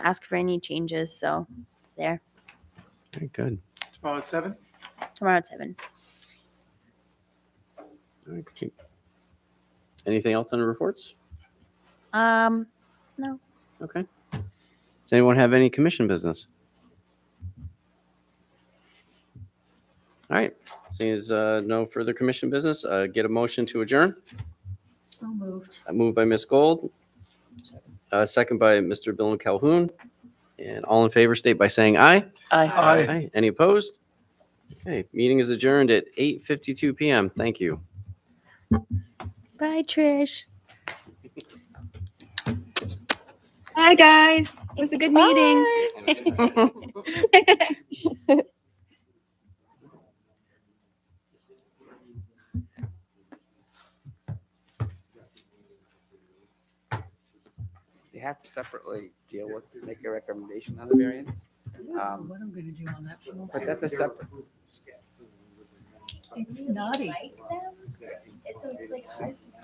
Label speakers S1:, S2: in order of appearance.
S1: ask for any changes. So there,
S2: Very good.
S3: Tomorrow at seven?
S1: tomorrow at seven.
S2: All right, great. Anything else on the reports?
S1: Um,
S2: Okay. Does anyone have any commission business? All right. Seeing as uh, no further commission business, uh, get a motion to adjourn. Uh,
S4: So moved.
S2: Moved by Ms. Gold, uh, second by Mr. Bill Calhoun. And all in favor, state by saying aye.
S3: Aye.
S2: Any opposed? Okay, meeting is adjourned at 8:52 PM. Thank you.
S1: bye, Trish.
S5: Hi, guys. It was a good meeting.
S1: Bye.
S6: They have to separately deal with, make a recommendation on the variance. Um,
S4: What I'm gonna do on that phone?
S6: But that's a separate,
S4: It's naughty.
S7: like them, and so it's like hard for